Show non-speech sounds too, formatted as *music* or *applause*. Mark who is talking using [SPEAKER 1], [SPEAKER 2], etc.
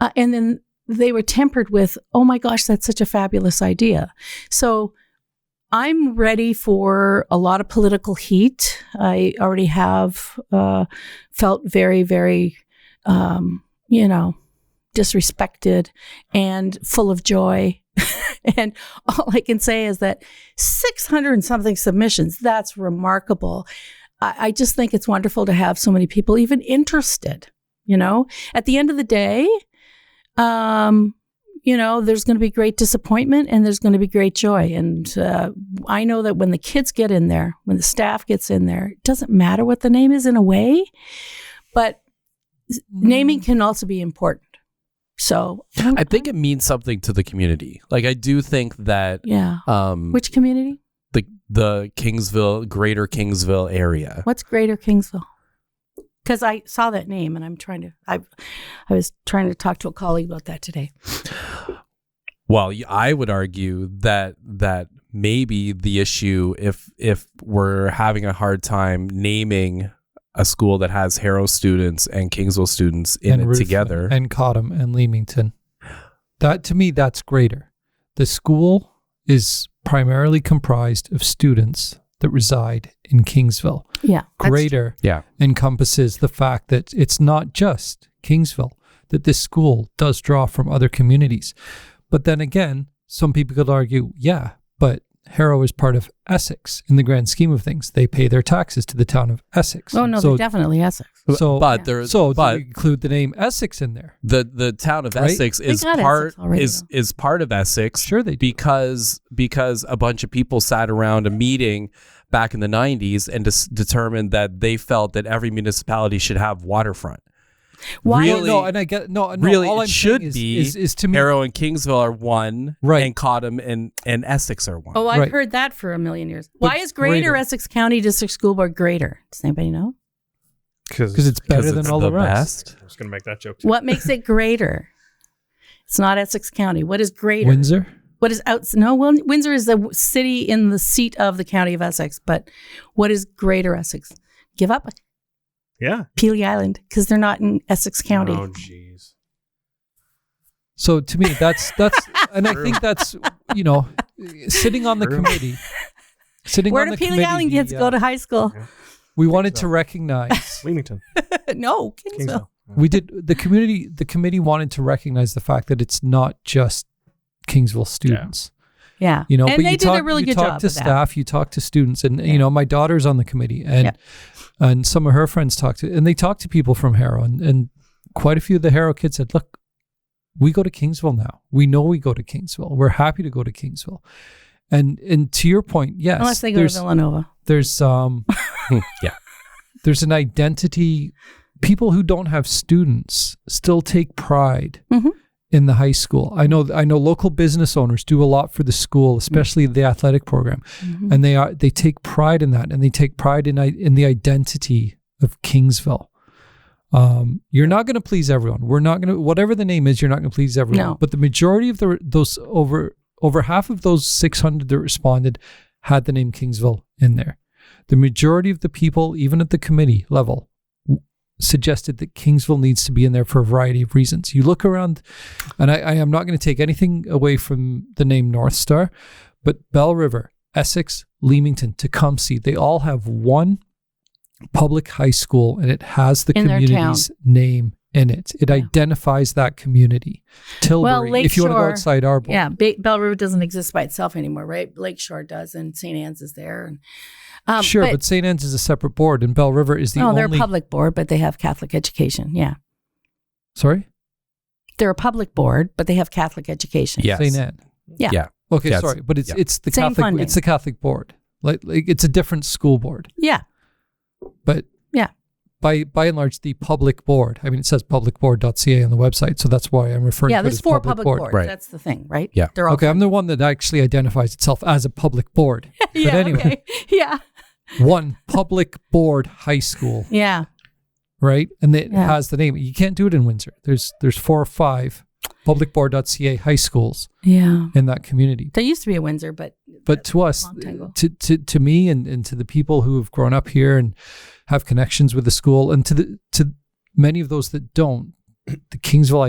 [SPEAKER 1] Uh, and then they were tempered with, oh my gosh, that's such a fabulous idea. So I'm ready for a lot of political heat. I already have uh, felt very, very, um, you know, disrespected and full of joy. *laughs* and all I can say is that 600 and something submissions, that's remarkable. I, I just think it's wonderful to have so many people even interested, you know? At the end of the day, um, you know, there's going to be great disappointment and there's going to be great joy. And uh, I know that when the kids get in there, when the staff gets in there, it doesn't matter what the name is in a way, but
[SPEAKER 2] Mm-hmm.
[SPEAKER 1] naming can also be important. So
[SPEAKER 3] Mm.
[SPEAKER 2] I think it means something to the community. Like I do think that
[SPEAKER 1] yeah.
[SPEAKER 2] um
[SPEAKER 1] Which community?
[SPEAKER 2] the the Kingsville greater Kingsville area.
[SPEAKER 1] What's Greater Kingsville? Because I saw that name and I'm trying to I I was trying to talk to a colleague about that today.
[SPEAKER 2] Well, y- I would argue that that maybe the issue if if we're having a hard time naming a school that has Harrow students and Kingsville students in
[SPEAKER 3] and
[SPEAKER 2] it
[SPEAKER 3] Ruthven
[SPEAKER 2] together.
[SPEAKER 3] and Cottam and Leamington. That to me, that's greater. The school is primarily comprised of students that reside in Kingsville.
[SPEAKER 1] Yeah. that's-
[SPEAKER 3] Greater
[SPEAKER 2] yeah.
[SPEAKER 3] encompasses the fact that it's not just Kingsville, that this school does draw from other communities. But then again, some people could argue, yeah, but Harrow is part of Essex in the grand scheme of things. They pay their taxes to the town of Essex.
[SPEAKER 1] Oh no,
[SPEAKER 3] so,
[SPEAKER 1] they're definitely Essex.
[SPEAKER 3] so,
[SPEAKER 2] but there
[SPEAKER 3] so do
[SPEAKER 2] but
[SPEAKER 3] you include the name Essex in there.
[SPEAKER 2] the the town of
[SPEAKER 3] Right?
[SPEAKER 2] Essex
[SPEAKER 1] They
[SPEAKER 2] is
[SPEAKER 1] got
[SPEAKER 2] part
[SPEAKER 1] Essex already,
[SPEAKER 2] is is part of Essex.
[SPEAKER 3] Sure they do.
[SPEAKER 2] because because a bunch of people sat around a meeting back in the 90s and dis- determined that they felt that every municipality should have waterfront.
[SPEAKER 1] Why
[SPEAKER 3] No,
[SPEAKER 2] Really-
[SPEAKER 3] no, and I get no, Uh, no
[SPEAKER 2] really,
[SPEAKER 3] all
[SPEAKER 2] it
[SPEAKER 3] I'm saying
[SPEAKER 2] should
[SPEAKER 3] is,
[SPEAKER 2] be
[SPEAKER 3] is, is to me
[SPEAKER 2] Harrow and Kingsville are one,
[SPEAKER 3] Right.
[SPEAKER 2] And Cottam and and Essex are one.
[SPEAKER 1] Oh, I've
[SPEAKER 3] Right.
[SPEAKER 1] heard that for a million years.
[SPEAKER 3] But
[SPEAKER 1] Why is Greater,
[SPEAKER 3] greater.
[SPEAKER 1] Essex County District School Board greater? Does anybody know?
[SPEAKER 3] because it's better
[SPEAKER 2] 'Cause
[SPEAKER 3] than
[SPEAKER 2] it's
[SPEAKER 3] all the, rest.
[SPEAKER 2] best.
[SPEAKER 4] I was going to make that joke too.
[SPEAKER 1] What makes it greater? It's not Essex County. What is greater?
[SPEAKER 3] Windsor,
[SPEAKER 1] What is out? No, well, Windsor is the w- city in the seat of the county of Essex. But what is Greater Essex? Give up
[SPEAKER 4] Yeah.
[SPEAKER 1] Peely Island because they're not in Essex County.
[SPEAKER 4] Oh, jeez.
[SPEAKER 3] So to me,
[SPEAKER 2] *laughs*
[SPEAKER 3] that's that's, and I think that's you know, sitting on the
[SPEAKER 4] True.
[SPEAKER 3] committee, sitting
[SPEAKER 1] Where
[SPEAKER 3] on
[SPEAKER 1] do
[SPEAKER 3] the
[SPEAKER 1] Peely
[SPEAKER 3] committee,
[SPEAKER 1] Island kids
[SPEAKER 3] the,
[SPEAKER 1] go
[SPEAKER 3] uh,
[SPEAKER 1] to high school?
[SPEAKER 3] We wanted to
[SPEAKER 2] *laughs*
[SPEAKER 4] Kingsville.
[SPEAKER 3] recognize.
[SPEAKER 4] Leamington.
[SPEAKER 1] *laughs* no, Kingsville.
[SPEAKER 4] Kingsville.
[SPEAKER 3] we did the community. The committee wanted to recognize the fact that it's not just Kingsville students.
[SPEAKER 1] Yeah,
[SPEAKER 3] You know,
[SPEAKER 1] and
[SPEAKER 3] but
[SPEAKER 1] they
[SPEAKER 3] you
[SPEAKER 1] did
[SPEAKER 3] talk,
[SPEAKER 1] a really
[SPEAKER 3] you
[SPEAKER 1] good
[SPEAKER 3] talk
[SPEAKER 1] job.
[SPEAKER 3] to
[SPEAKER 1] of that.
[SPEAKER 3] staff, you talk to students, and
[SPEAKER 1] Yeah.
[SPEAKER 3] you know, my daughter's on the committee, and and some of her friends talk to, and they talk to people from Harrow, and, and quite a few of the Harrow kids said, "Look, we go to Kingsville now. We know we go to Kingsville. We're happy to go to Kingsville." And and to your point, yes,
[SPEAKER 1] Unless they go to
[SPEAKER 3] there's
[SPEAKER 1] Villanova.
[SPEAKER 3] there's um
[SPEAKER 2] *laughs* yeah.
[SPEAKER 3] there's an identity. People who don't have students still take pride
[SPEAKER 1] Mhm.
[SPEAKER 3] in the high school. I know I know local business owners do a lot for the school, especially the athletic program, and they are they take pride in that, and they take pride in i- in the identity of Kingsville. Um, you're not going to please everyone. We're not going to whatever the name is. You're not going to please everyone.
[SPEAKER 1] No.
[SPEAKER 3] But the majority of the those over over half of those 600 that responded had the name Kingsville in there. The majority of the people, even at the committee level, w- suggested that Kingsville needs to be in there for a variety of reasons. You look around, and I, I am not going to take anything away from the name North Star, but Bell River, Essex, Leamington, Tecumseh, they all have one public high school and it has the
[SPEAKER 1] In their town.
[SPEAKER 3] community's name in it. It
[SPEAKER 1] Yeah.
[SPEAKER 3] identifies that community. Tilbury, if you want to go
[SPEAKER 1] Lakeshore-
[SPEAKER 3] outside Arbor.
[SPEAKER 1] Yeah, ba- Bell River doesn't exist by itself anymore, right? Lakeshore does, and St. Anne's is there. And, um,
[SPEAKER 3] sure, but, St. Anne's is a separate board and Bell River is the
[SPEAKER 1] no,
[SPEAKER 3] only.
[SPEAKER 1] they're a public board, but they have Catholic education. Yeah,
[SPEAKER 3] Sorry?
[SPEAKER 1] they're a public board, but they have Catholic education.
[SPEAKER 2] Yes.
[SPEAKER 3] St. Anne.
[SPEAKER 1] Yeah.
[SPEAKER 2] Yeah.
[SPEAKER 3] Okay,
[SPEAKER 2] Yeah, it's-
[SPEAKER 3] sorry, but it's
[SPEAKER 2] yeah.
[SPEAKER 3] it's the
[SPEAKER 1] Same
[SPEAKER 3] Catholic
[SPEAKER 1] funding.
[SPEAKER 3] it's the Catholic board. Like, like it's a different school board,
[SPEAKER 1] yeah,
[SPEAKER 3] but
[SPEAKER 1] yeah.
[SPEAKER 3] by by and large the public board. I mean it says publicboard.ca on the website, so that's why I'm referring
[SPEAKER 1] yeah
[SPEAKER 3] to it
[SPEAKER 1] there's
[SPEAKER 3] as
[SPEAKER 1] four
[SPEAKER 3] public
[SPEAKER 1] public,
[SPEAKER 3] board.
[SPEAKER 1] boards.
[SPEAKER 2] Right.
[SPEAKER 1] That's the thing, right?
[SPEAKER 2] Yeah.
[SPEAKER 1] they're all
[SPEAKER 3] okay, I'm the one that actually identifies itself as a public board.
[SPEAKER 1] *laughs* yeah,
[SPEAKER 3] but anyway,
[SPEAKER 1] okay. *laughs* yeah,
[SPEAKER 3] *laughs* one public board high school,
[SPEAKER 1] yeah.
[SPEAKER 3] right? And it
[SPEAKER 1] Yeah.
[SPEAKER 3] has the name. You can't do it in Windsor. There's there's four or five publicboard.ca high schools
[SPEAKER 1] Yeah.
[SPEAKER 3] in that community.
[SPEAKER 1] There used to be a Windsor, but
[SPEAKER 3] But to us,
[SPEAKER 1] long time ago.
[SPEAKER 3] to, to to me and, and to the people who have grown up here and have connections with *clears throat* the school and to the to many of those that don't, the Kingsville